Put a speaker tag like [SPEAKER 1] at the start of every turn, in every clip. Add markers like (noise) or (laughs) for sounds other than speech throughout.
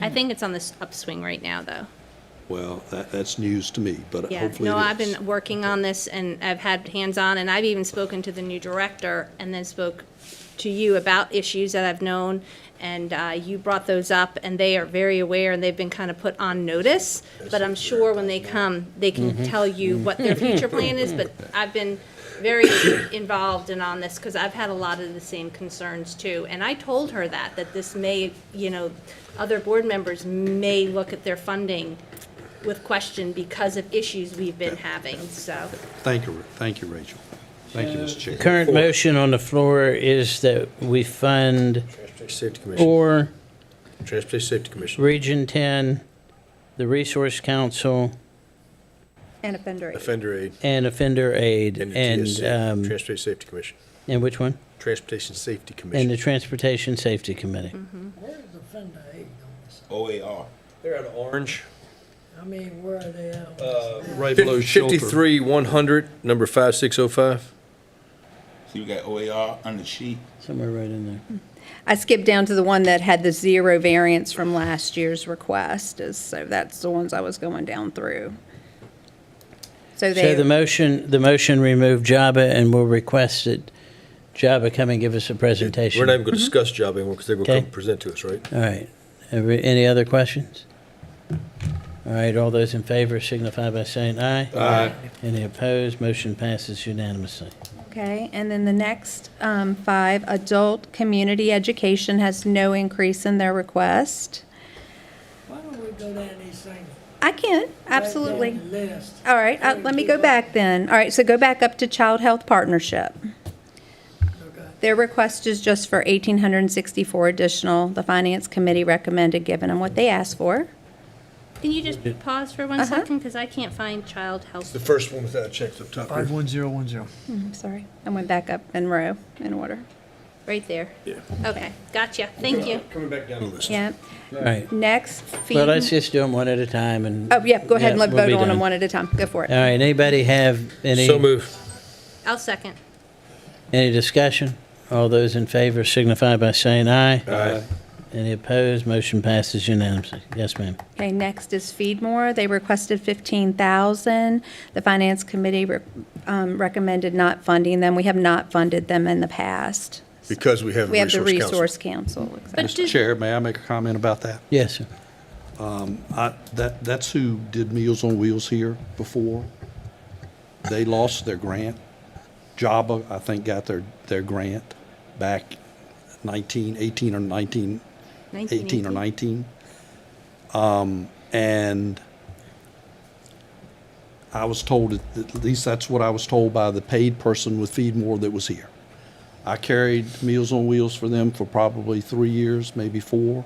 [SPEAKER 1] I
[SPEAKER 2] Hmm.
[SPEAKER 1] think it's on this upswing right now, though.
[SPEAKER 2] Well, that, that's news to me, but
[SPEAKER 1] Yeah,
[SPEAKER 2] hopefully
[SPEAKER 1] no,
[SPEAKER 2] it
[SPEAKER 1] I've
[SPEAKER 2] is.
[SPEAKER 1] been working on this and I've had hands-on and I've even spoken to the new director and then spoke to you about issues that I've known and uh, you brought those up and they are very aware and they've been kind of put on notice. But I'm sure when they come, they
[SPEAKER 2] Mm-hmm.
[SPEAKER 1] can tell you what their
[SPEAKER 2] (laughs)
[SPEAKER 1] future plan is, but I've been very involved and on this because I've had a lot of the same concerns too. And I told her that, that this may, you know, other board members may look at their funding with question because of issues we've been having, so.
[SPEAKER 2] Thank you, Ra- thank you, Rachel. Thank you, Mr. Chair.
[SPEAKER 3] Current motion on the floor is that we fund
[SPEAKER 4] Transportation Safety Commission.
[SPEAKER 3] four,
[SPEAKER 4] Transportation Safety Commission.
[SPEAKER 3] Region 10, the Resource Council,
[SPEAKER 5] And offender aid.
[SPEAKER 4] Offender aid.
[SPEAKER 3] and Offender Aid,
[SPEAKER 4] And the
[SPEAKER 3] Oh, and,
[SPEAKER 4] TSC,
[SPEAKER 3] um,
[SPEAKER 4] Transportation Safety Commission.
[SPEAKER 3] and which one?
[SPEAKER 4] Transportation Safety
[SPEAKER 3] And the
[SPEAKER 4] Commission.
[SPEAKER 3] Transportation Safety Committee.
[SPEAKER 6] Where's the Fender aid on this?
[SPEAKER 7] OAR.
[SPEAKER 8] They're out of Orange.
[SPEAKER 6] I mean, where are they at? on this now?
[SPEAKER 2] Right below shelter.
[SPEAKER 4] Fifty-three, one hundred, number five, six, oh, five.
[SPEAKER 7] So you got OAR on the sheet.
[SPEAKER 3] Somewhere right in there.
[SPEAKER 5] I skipped down to the one that had the zero variance from last year's request, is, so that's the ones I was going down through.
[SPEAKER 3] So
[SPEAKER 5] So
[SPEAKER 3] the
[SPEAKER 5] they,
[SPEAKER 3] motion, the motion remove JABA and we'll request that JABA come and give us a presentation.
[SPEAKER 4] We're not even gonna discuss job anymore, because they're gonna come
[SPEAKER 3] Okay.
[SPEAKER 4] present to us, right?
[SPEAKER 3] All right. Every- Any other questions? All right, all those in favor signify by saying aye. Aye. Any opposed? Motion passes unanimously.
[SPEAKER 5] okay, and then the next um, five, adult community education has no increase in their request.
[SPEAKER 6] Why don't we go down these things? right
[SPEAKER 5] I can,
[SPEAKER 6] down
[SPEAKER 5] absolutely.
[SPEAKER 6] the List.
[SPEAKER 5] All right, uh, let me go back then. All right, so go back up to child health partnership.
[SPEAKER 6] Okay.
[SPEAKER 5] Their request is just for 1,864 additional. The finance committee recommended giving them what they asked for.
[SPEAKER 1] Can you just pause for one second, because I can't find child health.
[SPEAKER 4] first one was that I checked up top
[SPEAKER 8] Five one zero one zero.
[SPEAKER 5] I'm sorry, I went back up in row in order.
[SPEAKER 1] Right there.
[SPEAKER 4] Yeah.
[SPEAKER 1] Okay, gotcha, thank you.
[SPEAKER 4] Coming back down the list.
[SPEAKER 5] Yeah,
[SPEAKER 3] All right.
[SPEAKER 5] next, feed.
[SPEAKER 3] Well, let's just do them one at a time and.
[SPEAKER 5] Oh, yeah, go ahead and let
[SPEAKER 3] we'll
[SPEAKER 5] vote
[SPEAKER 3] be
[SPEAKER 5] on
[SPEAKER 3] done.
[SPEAKER 5] them one at a time. Go for
[SPEAKER 3] All
[SPEAKER 5] it.
[SPEAKER 3] right, anybody have any,
[SPEAKER 4] So move.
[SPEAKER 1] I'll second.
[SPEAKER 3] any discussion? All those in favor signify by saying aye. Aye. Any opposed? Motion passes unanimously. Yes, ma'am.
[SPEAKER 5] Okay, next is Feedmore. They requested 15,000. The finance committee re- um, recommended not funding them. We have not funded them in the past.
[SPEAKER 4] Because we have
[SPEAKER 5] We
[SPEAKER 4] a
[SPEAKER 5] have the
[SPEAKER 4] resource council.
[SPEAKER 5] resource council.
[SPEAKER 1] But
[SPEAKER 2] Mr.
[SPEAKER 1] did-
[SPEAKER 2] Chair, may I make a comment about that?
[SPEAKER 3] Yes, sir.
[SPEAKER 2] I, that, that's who did Meals on Wheels here before. They lost their grant. Java, I think, got their, their grant back 19, 18 or 19, 18 or 19. Um, And I was told, that- at least that's what I was told by the paid person with Feed More that was here. I carried Meals on Wheels for them for probably three years, maybe four.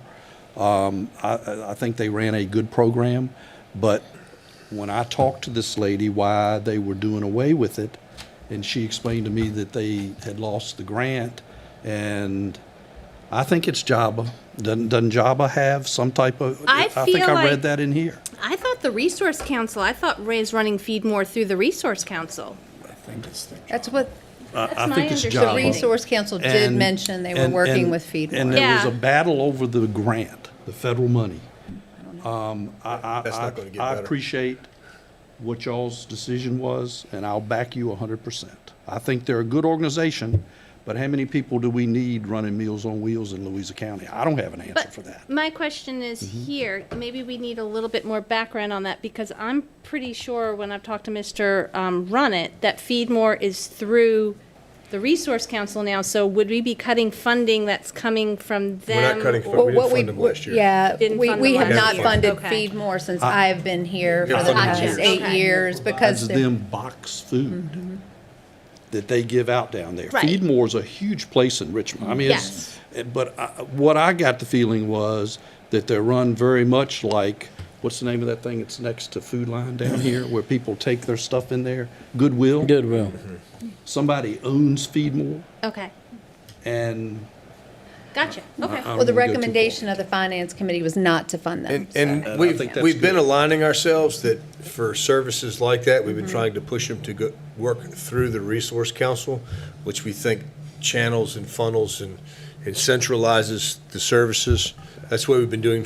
[SPEAKER 2] Um, I, I- I think they ran a good program, but when I talked to this lady why they were doing away with it, and she explained to me that they had lost the grant, and I think it's Java. Doesn't, doesn't Java have some type of?
[SPEAKER 1] I
[SPEAKER 2] think
[SPEAKER 1] feel
[SPEAKER 2] I
[SPEAKER 1] like-
[SPEAKER 2] read that in here.
[SPEAKER 1] I thought the resource council, I thought Ray's running feed more through the resource council.
[SPEAKER 5] That's what
[SPEAKER 2] I-
[SPEAKER 1] That's
[SPEAKER 2] I
[SPEAKER 1] my
[SPEAKER 2] think it's
[SPEAKER 1] understanding.
[SPEAKER 5] the
[SPEAKER 2] Java.
[SPEAKER 1] Well,
[SPEAKER 5] resource council did
[SPEAKER 2] And-
[SPEAKER 5] mention they were
[SPEAKER 2] and-
[SPEAKER 5] working
[SPEAKER 2] and-
[SPEAKER 5] with Feedmore.
[SPEAKER 2] And there was
[SPEAKER 1] Yeah.
[SPEAKER 2] a battle over the grant, the federal money. Um, I,
[SPEAKER 4] That's
[SPEAKER 2] I,
[SPEAKER 4] not gonna get
[SPEAKER 2] I, I
[SPEAKER 4] better.
[SPEAKER 2] appreciate what y'all's decision was, and I'll back you hundred percent. I think they're a good organization, but how many people do we need running Meals on Wheels in Louisa County? I don't have an answer
[SPEAKER 1] But
[SPEAKER 2] for that.
[SPEAKER 1] my question is
[SPEAKER 4] Mm-hmm.
[SPEAKER 1] here, maybe we need a little bit more background on that because I'm pretty sure when I've talked to Mr. Um, Runnett that Feed More is through the Resource Council now. So would we be cutting funding that's coming from them?
[SPEAKER 4] We're not cutting
[SPEAKER 1] or-
[SPEAKER 4] fun-
[SPEAKER 5] Well,
[SPEAKER 4] we
[SPEAKER 5] what
[SPEAKER 4] didn't
[SPEAKER 5] we,
[SPEAKER 4] fund them last year.
[SPEAKER 5] yeah,
[SPEAKER 1] Didn't
[SPEAKER 5] we,
[SPEAKER 1] fund
[SPEAKER 5] we
[SPEAKER 1] them
[SPEAKER 5] have not
[SPEAKER 1] last year.
[SPEAKER 5] funded
[SPEAKER 1] Okay.
[SPEAKER 5] Feed More since I've been here for
[SPEAKER 4] Haven't
[SPEAKER 5] the
[SPEAKER 4] funded them
[SPEAKER 5] past
[SPEAKER 1] in years.
[SPEAKER 5] eight
[SPEAKER 1] Okay.
[SPEAKER 5] years because
[SPEAKER 2] It's
[SPEAKER 5] they're,
[SPEAKER 2] them box food that they give out down there.
[SPEAKER 1] Right.
[SPEAKER 2] Feedmore's a huge place in Richmond. I mean, it's, eh, but I- what I got the feeling was that they're run very much like, what's the name of that thing that's next to Food Line down here, where people take their stuff in there? Goodwill?
[SPEAKER 3] Goodwill.
[SPEAKER 2] Somebody owns Feedmore,
[SPEAKER 1] Okay,
[SPEAKER 2] and
[SPEAKER 1] gotcha, okay.
[SPEAKER 2] I don't
[SPEAKER 5] well, the
[SPEAKER 2] wanna Um, go too far.
[SPEAKER 5] recommendation of the finance committee was not to fund them.
[SPEAKER 4] And,
[SPEAKER 5] so.
[SPEAKER 4] and
[SPEAKER 2] I think
[SPEAKER 4] we've,
[SPEAKER 2] that's
[SPEAKER 4] we've been
[SPEAKER 2] good.
[SPEAKER 4] aligning ourselves that for services like that, we've
[SPEAKER 5] Mm-hmm.
[SPEAKER 4] been trying to push them to go, work through the resource council, which we think channels and funnels and, and centralizes the services. That's what we've been doing